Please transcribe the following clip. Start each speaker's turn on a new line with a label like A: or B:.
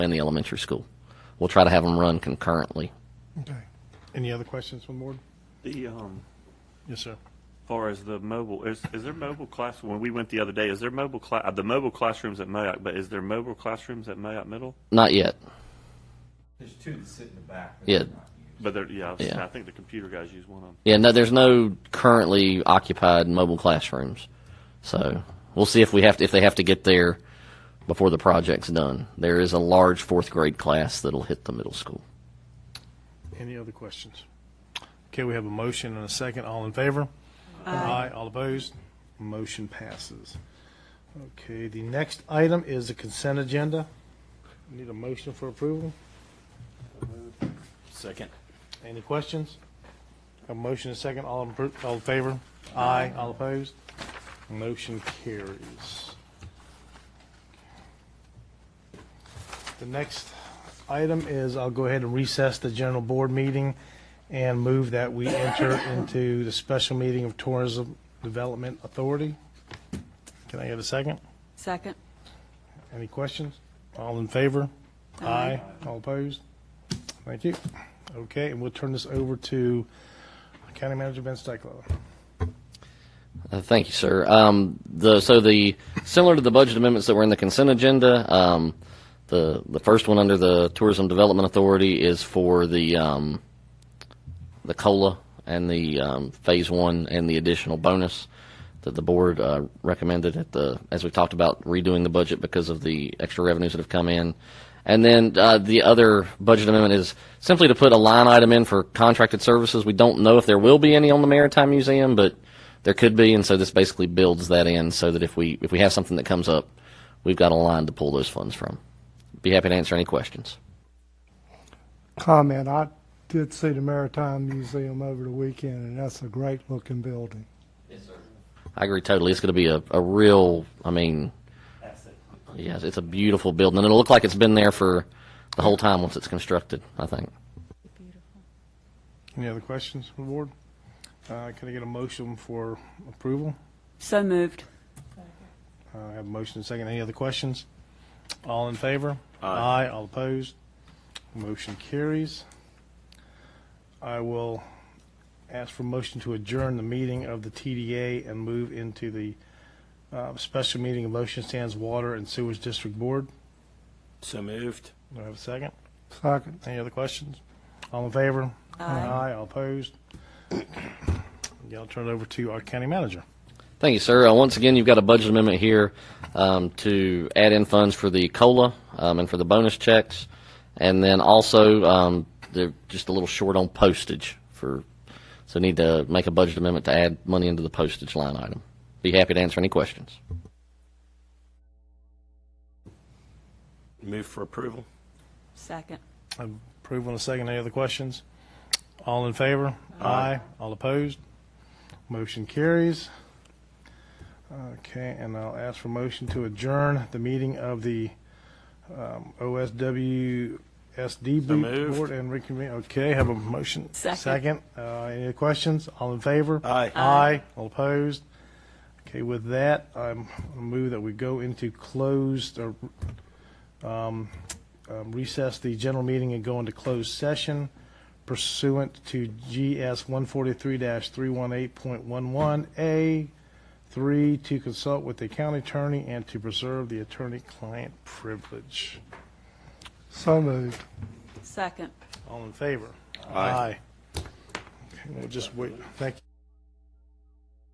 A: and the elementary school. We'll try to have them run concurrently.
B: Okay. Any other questions from the board?
C: The, um,
B: Yes, sir.
C: far as the mobile, is, is there mobile class, when we went the other day, is there mobile cla, uh, the mobile classrooms at Mayock, but is there mobile classrooms at Mayock Middle?
A: Not yet.
D: There's two that sit in the back. but
A: Yeah.
D: they're not used.
C: But there, yeah, I, was-
A: Yeah.
C: I think the computer guys use one of them.
A: Yeah, no, there's no currently occupied mobile classrooms. So we'll see if we have to, if they have to get there before the project's done. There is a large fourth grade class that'll hit the middle school.
B: Any other questions? Okay, we have a motion and a second. All in favor? Aye. All opposed? Motion passes. Okay, the next item is the consent agenda. Need a motion for approval?
E: Second.
B: Any questions? A motion and a second. All in, appro- all in favor? Aye. All opposed? Motion carries. The next item is I'll go ahead and recess the general board meeting and move that we enter into the special meeting of Tourism Development Authority. Can I get a second?
F: Second.
B: Any questions? All in favor? Aye. All opposed? Thank you. Okay, and we'll turn this over to County Manager Ben Steiklow.
A: Uh, Thank you, sir. Um, the, so the, similar to the budget amendments that were in the consent agenda, um, the, the first one under the Tourism Development Authority is for the, um, the COLA and the, um, Phase One and the additional bonus that the board, uh, recommended at the, as we talked about redoing the budget because of the extra revenues that have come in. And then, uh, the other budget amendment is simply to put a line item in for contracted services. We don't know if there will be any on the Maritime Museum, but there could be, and so this basically builds that in so that if we if we have something that comes up, we've got a line to pull those funds from. Be happy to answer any questions.
G: comment, I did see the Maritime Museum over the weekend, and that's a great-looking building.
A: I agree totally. It's going to be a, a real, I mean, yes, it's a beautiful building, and it'll look like it's been there for the whole time once it's constructed. I think.
B: Any other questions from the board? Uh, Can I get a motion for approval?
F: So moved.
B: Uh, I have a motion and a second. Any other questions? All in favor?
E: Aye.
B: All opposed? Motion carries. I will ask for motion to adjourn the meeting of the TDA and move into the uh, special meeting of Ocean Sands Water and Sewers District Board.
E: So moved.
B: Do I have a second?
G: Second.
B: Any other questions? All in favor? Aye. All opposed? Yeah, I'll turn it over to our county manager.
A: Thank you, sir. Uh, Once again, you've got a budget amendment here um, to add in funds for the COLA um, and for the bonus checks. And then also, um, they're just a little short on postage for, so need to make a budget amendment to add money into the postage line item. Be happy to answer any questions.
E: Move for approval.
F: Second.
B: Approve on a second. Any other questions? All in favor? Aye. All opposed? Motion carries. Okay, and I'll ask for motion to adjourn the meeting of the um, OSWSD
E: moved.
B: Board and reconvene. Okay, have a motion.
F: Second.
B: Uh, Any other questions? All in favor?
E: Aye.
B: Aye. All opposed? Okay, with that, I'm, I move that we go into closed, or um, um, recess the general meeting and go into closed session pursuant to GS 143-318.11A 3, to consult with the county attorney and to preserve the attorney-client privilege.
G: So moved.
F: Second.
B: All in favor?
E: Aye.
B: Okay, We'll just wait. Thank you.